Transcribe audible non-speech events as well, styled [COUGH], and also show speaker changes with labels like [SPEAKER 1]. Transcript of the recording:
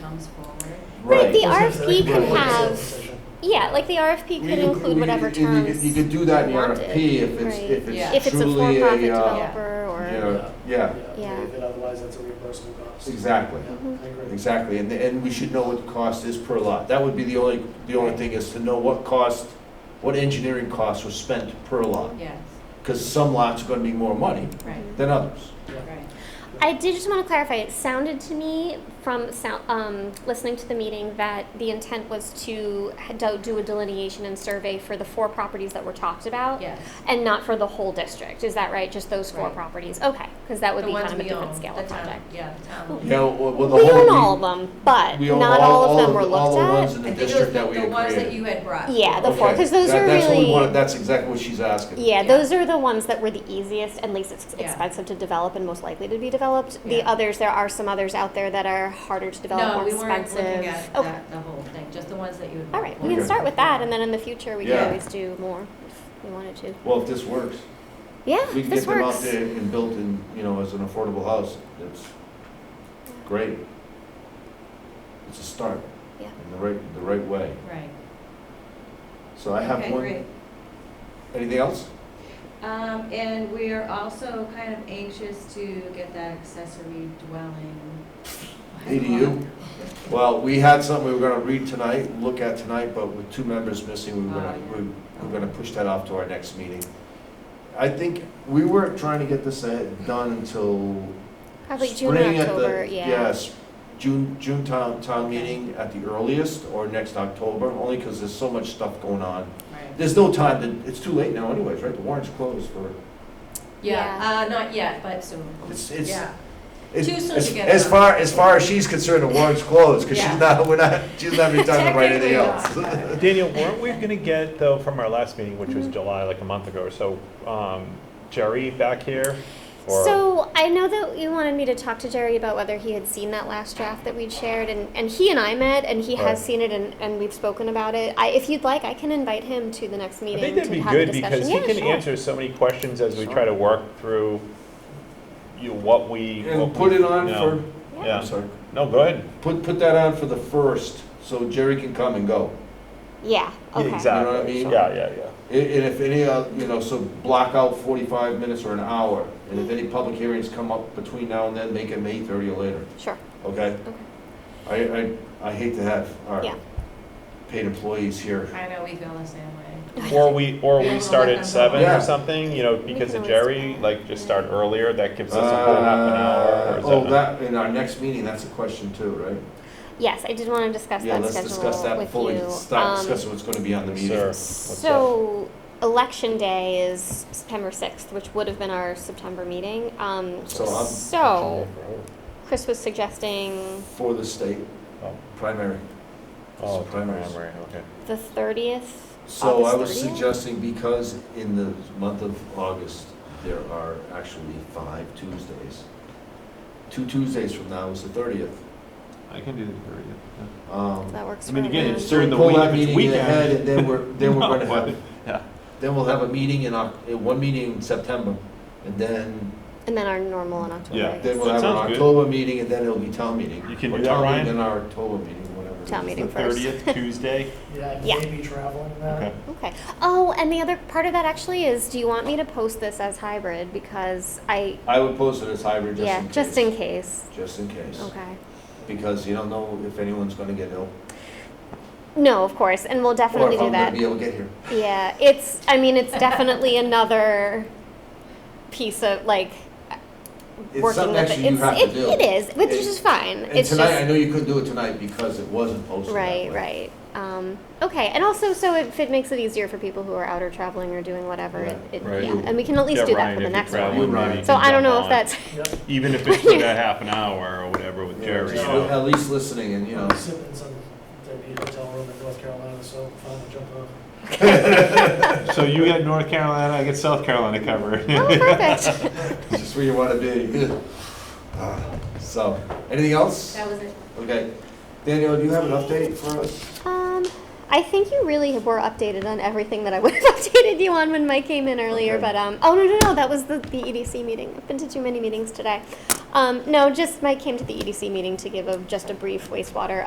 [SPEAKER 1] comes forward.
[SPEAKER 2] Right.
[SPEAKER 3] The
[SPEAKER 4] That's what I'm saying.
[SPEAKER 3] RFP
[SPEAKER 4] They
[SPEAKER 2] could
[SPEAKER 4] could put it in
[SPEAKER 3] have-
[SPEAKER 4] the session.
[SPEAKER 3] Yeah, like the RFP
[SPEAKER 2] We
[SPEAKER 3] could
[SPEAKER 2] could-
[SPEAKER 3] include
[SPEAKER 2] we
[SPEAKER 3] whatever
[SPEAKER 2] could- you could-
[SPEAKER 3] terms.
[SPEAKER 2] You could do that in the
[SPEAKER 3] wanted,
[SPEAKER 2] RFP if it's,
[SPEAKER 3] right.
[SPEAKER 2] if
[SPEAKER 1] Yeah.
[SPEAKER 3] If
[SPEAKER 2] it's
[SPEAKER 3] it's a
[SPEAKER 2] truly
[SPEAKER 3] for-profit
[SPEAKER 2] a, uh,
[SPEAKER 3] developer or.
[SPEAKER 2] you know, yeah,
[SPEAKER 3] Yeah. Mm-hmm.
[SPEAKER 4] If it otherwise, that's a reimbursable cost.
[SPEAKER 2] exactly.
[SPEAKER 4] Yeah, I agree.
[SPEAKER 2] Exactly, and, and we should know what the cost is per lot. That would be the only, the only thing is to know what cost, what engineering costs were spent per lot.
[SPEAKER 1] Yes,
[SPEAKER 2] Because some lots are gonna be more money
[SPEAKER 1] right,
[SPEAKER 2] than others.
[SPEAKER 1] right.
[SPEAKER 3] I did just want to clarify. It sounded to me from sound, um, listening to the meeting that the intent was to ha- do- do a delineation and survey for the four properties that were talked about,
[SPEAKER 1] Yes.
[SPEAKER 3] and not for the whole district. Is that right? Just those four
[SPEAKER 1] Right.
[SPEAKER 3] properties? Okay, because that would
[SPEAKER 1] The
[SPEAKER 3] be
[SPEAKER 1] ones
[SPEAKER 3] kind of a
[SPEAKER 1] we
[SPEAKER 3] different
[SPEAKER 1] own,
[SPEAKER 3] scale
[SPEAKER 1] the
[SPEAKER 3] of
[SPEAKER 1] town-
[SPEAKER 3] project.
[SPEAKER 1] Yeah, the town.
[SPEAKER 2] You know, well, well, the
[SPEAKER 3] we
[SPEAKER 2] whole.
[SPEAKER 3] own all of them, but
[SPEAKER 2] we own
[SPEAKER 3] not all, of them
[SPEAKER 2] the-
[SPEAKER 3] were looked
[SPEAKER 2] all the
[SPEAKER 3] at.
[SPEAKER 2] ones in
[SPEAKER 1] I
[SPEAKER 2] the
[SPEAKER 1] think it was
[SPEAKER 2] district
[SPEAKER 1] the-
[SPEAKER 2] that we
[SPEAKER 1] The
[SPEAKER 2] had
[SPEAKER 1] ones that
[SPEAKER 2] created.
[SPEAKER 1] you had brought.
[SPEAKER 3] yeah, the four,
[SPEAKER 2] Okay,
[SPEAKER 3] because those
[SPEAKER 2] that-
[SPEAKER 3] are
[SPEAKER 2] that's what we
[SPEAKER 3] really.
[SPEAKER 2] wanted- That's exactly what she's asking.
[SPEAKER 1] Yeah.
[SPEAKER 3] Yeah, those are the ones that were the easiest and least ex-
[SPEAKER 1] Yeah.
[SPEAKER 3] expensive to develop and most likely to be developed. The
[SPEAKER 1] Yeah.
[SPEAKER 3] others, there are some others out there that are harder to develop,
[SPEAKER 1] No,
[SPEAKER 3] more
[SPEAKER 1] we weren't
[SPEAKER 3] expensive.
[SPEAKER 1] looking at
[SPEAKER 3] okay.
[SPEAKER 1] that, the whole thing, just the ones that you had.
[SPEAKER 3] All right, we can
[SPEAKER 2] Okay.
[SPEAKER 3] start with that, and then in the future we
[SPEAKER 2] Yeah.
[SPEAKER 3] can always do more if we wanted to.
[SPEAKER 2] Well, if this works,
[SPEAKER 3] Yeah,
[SPEAKER 2] we can
[SPEAKER 3] this
[SPEAKER 2] get them out
[SPEAKER 3] works.
[SPEAKER 2] there and built in, you know, as an affordable house, it's great. It's a start.
[SPEAKER 3] Yeah.
[SPEAKER 2] In the right, the right way.
[SPEAKER 1] Right.
[SPEAKER 2] So I have
[SPEAKER 1] Okay,
[SPEAKER 2] one,
[SPEAKER 1] great.
[SPEAKER 2] anything else?
[SPEAKER 1] Um, and we are also kind of anxious to get that accessory dwelling.
[SPEAKER 2] ADU? Well, we had something we were gonna read tonight, look at tonight, but with two members missing, we were gonna,
[SPEAKER 1] Oh,
[SPEAKER 2] we we're gonna push that off to our next meeting. I think, we weren't trying to get this uh, done until
[SPEAKER 3] Probably June
[SPEAKER 2] Spring
[SPEAKER 3] or
[SPEAKER 2] at the-
[SPEAKER 3] October, yeah.
[SPEAKER 2] Yes, June, June town, town
[SPEAKER 1] Okay.
[SPEAKER 2] meeting at the earliest, or next October, only because there's so much stuff going on.
[SPEAKER 1] Right.
[SPEAKER 2] There's no time to, it's too late now anyways, right? The warrant's closed for,
[SPEAKER 1] Yeah, uh, not yet, but soon.
[SPEAKER 2] it's, it's.
[SPEAKER 1] Yeah.
[SPEAKER 2] it-
[SPEAKER 1] Too soon to
[SPEAKER 2] as-
[SPEAKER 1] get
[SPEAKER 2] As
[SPEAKER 1] it.
[SPEAKER 2] far, as far as she's concerned, the warrant's closed, because
[SPEAKER 1] Yeah.
[SPEAKER 2] she's not, we're not, she's
[SPEAKER 1] [LAUGHS]
[SPEAKER 2] not having time to write anything else.
[SPEAKER 1] Technically not.
[SPEAKER 5] Daniel, weren't we going to get, though, from our last meeting, which
[SPEAKER 3] Mm-hmm.
[SPEAKER 5] was July, like a month ago or so, um, Jerry back here? Or-
[SPEAKER 3] So I know that you wanted me to talk to Jerry about whether he had seen that last draft that we'd shared, and, and he and I met, and he
[SPEAKER 5] Right.
[SPEAKER 3] has seen it, and, and we've spoken about it. I, if you'd like, I can invite him to the next
[SPEAKER 5] I
[SPEAKER 3] meeting
[SPEAKER 5] think that'd
[SPEAKER 3] to
[SPEAKER 5] be
[SPEAKER 3] have a
[SPEAKER 5] good
[SPEAKER 3] discussion.
[SPEAKER 5] because he
[SPEAKER 3] yeah,
[SPEAKER 5] can
[SPEAKER 3] sure.
[SPEAKER 5] answer so many questions as we
[SPEAKER 2] Sure.
[SPEAKER 5] try to work through, you know, what we. what
[SPEAKER 2] And
[SPEAKER 5] we
[SPEAKER 2] put it on
[SPEAKER 5] know.
[SPEAKER 2] for,
[SPEAKER 5] Yeah.
[SPEAKER 2] I'm sorry,
[SPEAKER 5] No, go ahead.
[SPEAKER 2] put, put that on for the first, so Jerry can come and go.
[SPEAKER 3] Yeah.
[SPEAKER 5] Yeah,
[SPEAKER 3] Okay.
[SPEAKER 5] Exactly.
[SPEAKER 2] I mean?
[SPEAKER 5] Yeah, yeah, yeah.
[SPEAKER 2] And and if any, uh, you know, so block out 45 minutes or an hour, and if any public hearings come up between now and then, make them 8:30 or later,
[SPEAKER 3] Sure.
[SPEAKER 2] okay?
[SPEAKER 3] Okay.
[SPEAKER 2] I, I, I hate to have our
[SPEAKER 3] Yeah.
[SPEAKER 2] paid employees here.
[SPEAKER 1] I know, we feel the same way.
[SPEAKER 5] Or we, or
[SPEAKER 1] Yeah.
[SPEAKER 3] [LAUGHS]
[SPEAKER 5] we start at seven
[SPEAKER 2] Yeah.
[SPEAKER 5] or something, you know,
[SPEAKER 3] We
[SPEAKER 5] because
[SPEAKER 3] can
[SPEAKER 5] of
[SPEAKER 3] always do
[SPEAKER 5] Jerry,
[SPEAKER 3] that.
[SPEAKER 5] like, just start earlier, that gives us another half an hour
[SPEAKER 2] Uh,
[SPEAKER 5] or so.
[SPEAKER 2] Oh, that, in our next meeting, that's a question too, right?
[SPEAKER 3] Yes, I did want to discuss
[SPEAKER 2] Yeah,
[SPEAKER 3] that
[SPEAKER 2] let's
[SPEAKER 3] schedule
[SPEAKER 2] discuss that
[SPEAKER 3] with
[SPEAKER 2] fully,
[SPEAKER 3] you.
[SPEAKER 2] start
[SPEAKER 3] Um,
[SPEAKER 2] discussing what's going to be on the
[SPEAKER 5] Yes,
[SPEAKER 2] meeting.
[SPEAKER 5] sir. What's that?
[SPEAKER 3] So, election day is September 6th, which would have been our September meeting. Um,
[SPEAKER 2] So I'm-
[SPEAKER 3] so, Chris was suggesting
[SPEAKER 2] For the state
[SPEAKER 5] Oh.
[SPEAKER 2] primary.
[SPEAKER 5] Oh, it's
[SPEAKER 2] Primaries.
[SPEAKER 5] primary, okay.
[SPEAKER 3] the 30th.
[SPEAKER 2] So I
[SPEAKER 3] August
[SPEAKER 2] was
[SPEAKER 3] 30th?
[SPEAKER 2] suggesting because in the month of August, there are actually five Tuesdays. Two Tuesdays from now is the thirtieth. Um,
[SPEAKER 6] I can do the period. yeah.
[SPEAKER 3] That works
[SPEAKER 6] I mean,
[SPEAKER 3] for
[SPEAKER 6] again,
[SPEAKER 3] everyone.
[SPEAKER 6] it's during the
[SPEAKER 2] Pull
[SPEAKER 6] week,
[SPEAKER 2] that
[SPEAKER 6] if it's
[SPEAKER 2] meeting ahead
[SPEAKER 6] weekend.
[SPEAKER 2] and then we're, then
[SPEAKER 6] [LAUGHS]
[SPEAKER 2] we're gonna
[SPEAKER 6] No,
[SPEAKER 2] have,
[SPEAKER 6] Yeah,
[SPEAKER 2] then we'll have a meeting in Oc, uh, one meeting in September. And then,
[SPEAKER 3] And then our normal in October.
[SPEAKER 6] Yeah.
[SPEAKER 3] I guess.
[SPEAKER 2] then we'll
[SPEAKER 6] That
[SPEAKER 2] have an
[SPEAKER 6] sounds good.
[SPEAKER 2] October meeting and then it'll be town meeting.
[SPEAKER 6] You can
[SPEAKER 2] Or
[SPEAKER 6] do that,
[SPEAKER 2] town meeting
[SPEAKER 6] Ryan?
[SPEAKER 2] and our October meeting, whatever. it
[SPEAKER 3] Town
[SPEAKER 2] is.
[SPEAKER 6] It's
[SPEAKER 3] meeting
[SPEAKER 6] the
[SPEAKER 3] first.
[SPEAKER 6] thirtieth,
[SPEAKER 3] [LAUGHS]
[SPEAKER 6] Tuesday.
[SPEAKER 3] Yeah.
[SPEAKER 4] Yeah, maybe traveling
[SPEAKER 6] Okay.
[SPEAKER 4] that.
[SPEAKER 3] Okay. Oh, and the other part of that actually is do you want me to post this as hybrid? Because I,
[SPEAKER 2] I would post it as hybrid just
[SPEAKER 3] yeah,
[SPEAKER 2] in case.
[SPEAKER 3] just in case.
[SPEAKER 2] Just in case.
[SPEAKER 3] Okay.
[SPEAKER 2] Because you don't know if anyone's gonna get ill.
[SPEAKER 3] No, of course, and we'll definitely
[SPEAKER 2] Or
[SPEAKER 3] do
[SPEAKER 2] if I'm
[SPEAKER 3] that.
[SPEAKER 2] gonna be able to get here.
[SPEAKER 3] Yeah, it's. I mean, it's definitely another piece of like
[SPEAKER 2] It's
[SPEAKER 3] working
[SPEAKER 2] something
[SPEAKER 3] with
[SPEAKER 2] extra
[SPEAKER 3] it.
[SPEAKER 2] you
[SPEAKER 3] It's,
[SPEAKER 2] have to
[SPEAKER 3] it,
[SPEAKER 2] do.
[SPEAKER 3] it is, which
[SPEAKER 2] It-
[SPEAKER 3] is just fine.
[SPEAKER 2] And
[SPEAKER 3] it's
[SPEAKER 2] tonight, I
[SPEAKER 3] just
[SPEAKER 2] know you couldn't do it tonight because it wasn't posted. that
[SPEAKER 3] right,
[SPEAKER 2] way.
[SPEAKER 3] right. Um, okay, and also, so if it makes it easier for people who are out or traveling or doing whatever,
[SPEAKER 2] Right,
[SPEAKER 3] it, it,
[SPEAKER 6] right.
[SPEAKER 3] yeah, and we can at least
[SPEAKER 5] Yeah,
[SPEAKER 3] do
[SPEAKER 5] Ryan,
[SPEAKER 3] that for the
[SPEAKER 5] if you're
[SPEAKER 3] next
[SPEAKER 5] traveling,
[SPEAKER 3] one.
[SPEAKER 2] You
[SPEAKER 5] maybe
[SPEAKER 2] run.
[SPEAKER 5] you
[SPEAKER 3] So
[SPEAKER 5] can
[SPEAKER 3] I don't
[SPEAKER 5] jump
[SPEAKER 3] know if
[SPEAKER 5] on.
[SPEAKER 3] that's
[SPEAKER 4] Yep.
[SPEAKER 5] Even if it's
[SPEAKER 3] [LAUGHS]
[SPEAKER 5] for that half an hour or whatever with
[SPEAKER 2] Yeah,
[SPEAKER 5] Jerry, you
[SPEAKER 2] just
[SPEAKER 5] know.
[SPEAKER 2] At least listening and, you know,
[SPEAKER 4] Sitting in some, there'd be a hotel room in North Carolina, so fine, I'll jump on.
[SPEAKER 6] [LAUGHS] So you get North Carolina, I get South Carolina covered.
[SPEAKER 3] [LAUGHS] oh
[SPEAKER 5] [LAUGHS]
[SPEAKER 3] perfect.
[SPEAKER 2] it's [LAUGHS] just where you want to be. [SIGHS] Ah, So, anything else?
[SPEAKER 1] That was it.
[SPEAKER 2] Okay. Daniel, do you have an update for us?
[SPEAKER 3] um, I think you really were updated on everything that I [LAUGHS] would have updated you on when Mike came in earlier.
[SPEAKER 2] Okay.
[SPEAKER 3] E But um, oh no no no, that was the, the EDC meeting. I've been to too many meetings today. E Um, no, just, Mike came to the EDC meeting to give a, just a brief wastewater